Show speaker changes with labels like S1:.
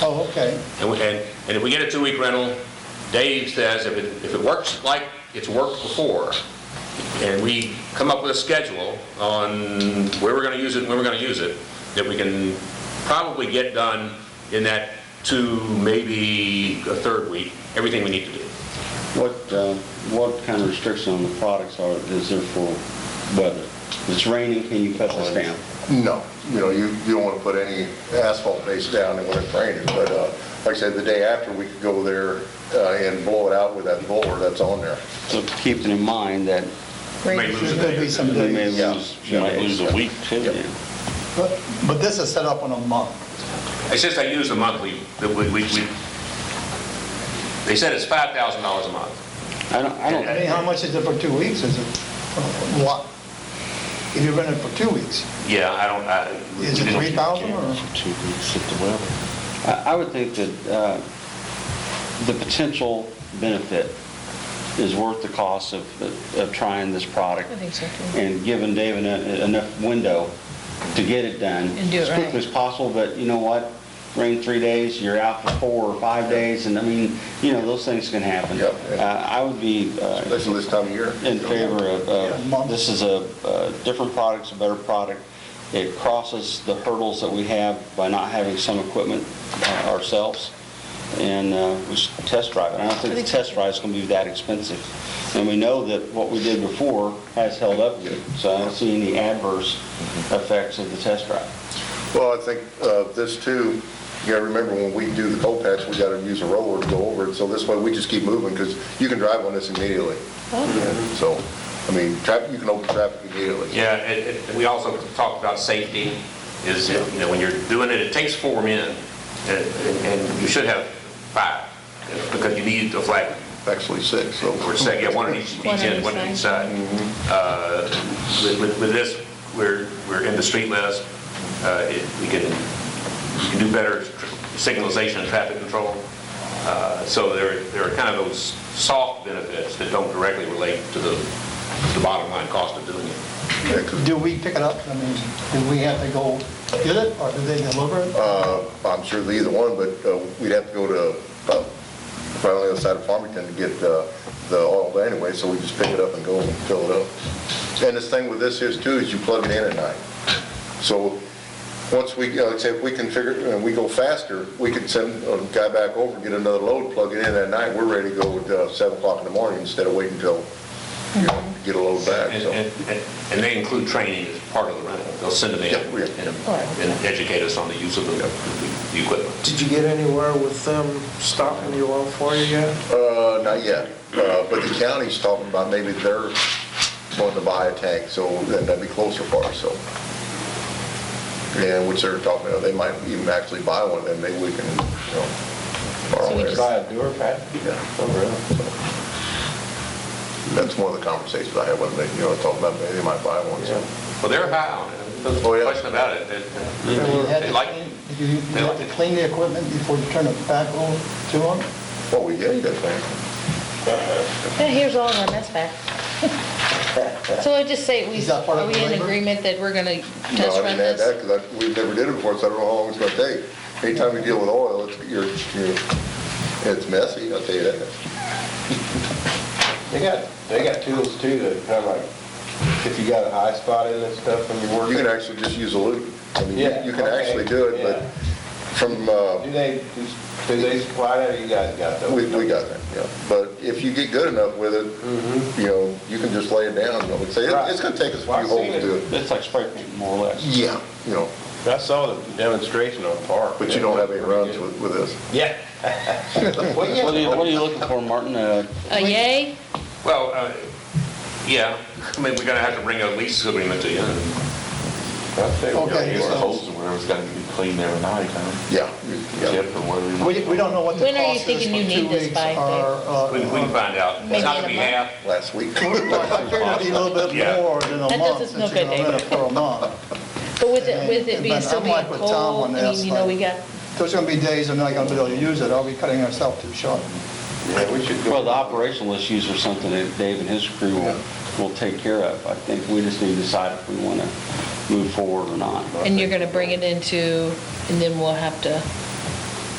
S1: Oh, okay.
S2: And, we- and and if we get a two-week rental, Dave says if it, if it works like it's worked before, and we come up with a schedule on where we're gonna use it, and when we're gonna use it, that we can probably get done in that two, maybe a third week, everything we need to do.
S3: What, uh, what kind of restriction on the products are, is there for weather? If It's raining, can you cut this down?
S4: No, you know, you, you don't want to put any asphalt base down when it's raining, but uh, like I said, the day after, we could go there uh, and blow it out with that blower that's on there.
S3: So keeping in mind that
S2: May lose
S1: There
S2: a
S1: could
S2: day.
S1: be some
S3: we may
S1: days.
S3: lose.
S5: You might lose a week too.
S3: Yeah.
S1: But but this is set up on a month.
S2: It's just I use the monthly, that we, we, we- they said it's five thousand dollars a month.
S3: I don't, I
S1: I
S3: don't,
S1: mean, how much is it for two weeks? Is it, what? If you rent it for two weeks,
S2: Yeah, I don't, I. we
S1: is it
S2: didn't-
S1: 3,000 or?
S5: For two weeks at the weather.
S3: I I would think that uh, the potential benefit is worth the cost of, of trying this product.
S6: I think so, too.
S3: And giving David a- enough window to get it done.
S6: And do it
S3: As
S6: right.
S3: quickly as possible, but you know what? Rain three days, you're out for four or five days, and I mean, you know, those things can happen.
S4: Yeah.
S3: Uh, I would be uh,
S4: Especially this time of year.
S3: in favor of,
S1: Yeah.
S3: of, this is a, a different product, it's a better product. It crosses the hurdles that we have by not having some equipment uh, ourselves, and uh, we should test drive it. I don't think the test drive's gonna be that expensive. And we know that what we did before has held up good, so I don't see any adverse effects of the test drive.
S4: Well, I think uh, this too, you gotta remember when we do the cold patch, we gotta use a roller to go over it, so this way we just keep moving, because you can drive on this immediately. So, I mean, traffic, you can open traffic immediately.
S2: Yeah, it, it, we also talked about safety, is, you know, when you're doing it, it takes four men, and, and you should have five, because you need a flag,
S4: Actually six, so.
S2: or second, yeah, one on each, each
S6: One on
S2: end,
S6: each
S2: one on each side. Uh, with- With, with this, we're, we're in the street list, uh, it, we can, we can do better signalization and traffic control. Uh, So there, there are kind of those soft benefits that don't directly relate to the, the bottom line cost of doing it.
S4: Yeah, 'cause
S1: do we pick it up? I mean, do we have to go get it or do they deliver it?
S4: Uh, I'm sure the either one, but uh, we'd have to go to, uh, right on the other side of Farmington to get uh, the oil anyway, so we just pick it up and go and fill it up. And this thing with this is too, is you plug it in at night. So, once we, uh, like I say, if we can figure, and we go faster, we can send a guy back over, get another load, plug it in at night, we're ready to go at uh, seven o'clock in the morning instead of waiting till, you know, to get a load back,
S2: And,
S4: so.
S2: and- and they include training as part of the rental. They'll send them in
S4: Yep, we-
S2: and and educate us on the use of the the equipment.
S7: Did you get anywhere with them stopping you oil for you yet?
S4: Uh, not yet, uh, but the county's talking about maybe they're going to buy a tank, so then that'd be closer for us, so. And which they're talking about, they might even actually buy one, then maybe we can, you know, borrow
S6: So we
S4: theirs.
S6: just-
S5: a door pad?
S4: Yeah,
S5: Oh, really?
S4: That's one of the conversations I had with them, you know, talking about maybe they might buy one, so.
S2: Well, they're high on it. There's
S4: Oh,
S2: no
S4: yeah.
S2: question about it.
S1: Do
S2: They-
S1: we have to
S2: They like,
S1: clean- Do you
S2: they
S1: you have
S2: like
S1: to
S2: it.
S1: clean the equipment before you turn it back over to them?
S4: Well, we did, that thing.
S6: Yeah, here's all of our mess back. So I just say, we,
S1: Is that part of
S6: are we
S1: the
S6: in
S1: labor?
S6: agreement that we're gonna
S4: No,
S6: test
S4: I
S6: run
S4: didn't add that, because
S6: this?
S4: we never did it before, so I don't know how long it's gonna take. Anytime you deal with oil, it's, you're, you're, it's messy, I'll tell you that.
S8: They got, they got tools too that kind of like, if you got an eye spot in and stuff when you're
S4: You
S8: working.
S4: can actually just use a loop. I mean, you
S8: Yeah,
S4: you can
S8: okay,
S4: actually do it, but
S8: yeah.
S4: from, uh,
S8: Do they, do they supply that or you guys got those?
S4: we, we got that, yeah. But if you get good enough with it, you know, you can just lay it down, I would say, It- it's gonna take us a few
S8: Mm-hmm. Right. Well, I've
S4: holes to
S8: seen
S4: do it.
S3: It's like spray paint, more or less.
S4: Yeah, you know,
S8: I saw the demonstration on Park.
S4: but you don't have any runs with, with this.
S8: Yeah. Well, yeah.
S3: What are you, what are you looking for, Martin? Uh,
S6: A yay?
S2: well, uh, yeah, I mean, we're gonna have to bring a lease agreement to you.
S5: I'd say we gotta
S1: Okay,
S5: get our
S1: so-
S5: holes where it's gotta be cleaned every night, huh?
S4: Yeah, you- yeah.
S5: Except for where
S1: We, we don't know what the
S6: When are you
S1: cost is
S6: thinking you
S1: for
S6: need
S1: two
S6: this
S1: weeks
S6: by, Dave?
S1: or, uh,
S2: We we can find out. It's
S6: Maybe
S2: not
S6: in
S2: gonna
S6: a
S2: be
S6: month.
S2: half.
S4: Last week.
S1: I figured it'd be a little bit
S2: Yeah.
S1: more than a
S6: That
S1: month
S6: doesn't
S1: since
S6: look
S1: you're
S6: good,
S1: gonna rent it
S6: David.
S1: for a month.
S6: But with it, with it being
S1: But
S6: still
S1: I'm
S6: being
S1: like with Tom
S6: cold,
S1: on
S6: I
S1: this,
S6: mean, you know,
S1: like-
S6: we got,
S1: There's gonna be days I'm not gonna be able to use it, I'll be cutting ourselves too short.
S8: Yeah, we should
S3: Well, the
S8: go.
S3: operational issues are something that Dave and his crew will, will take care of. I think we just need to decide if we want to move forward or not.
S6: and you're gonna bring it into, and then we'll have to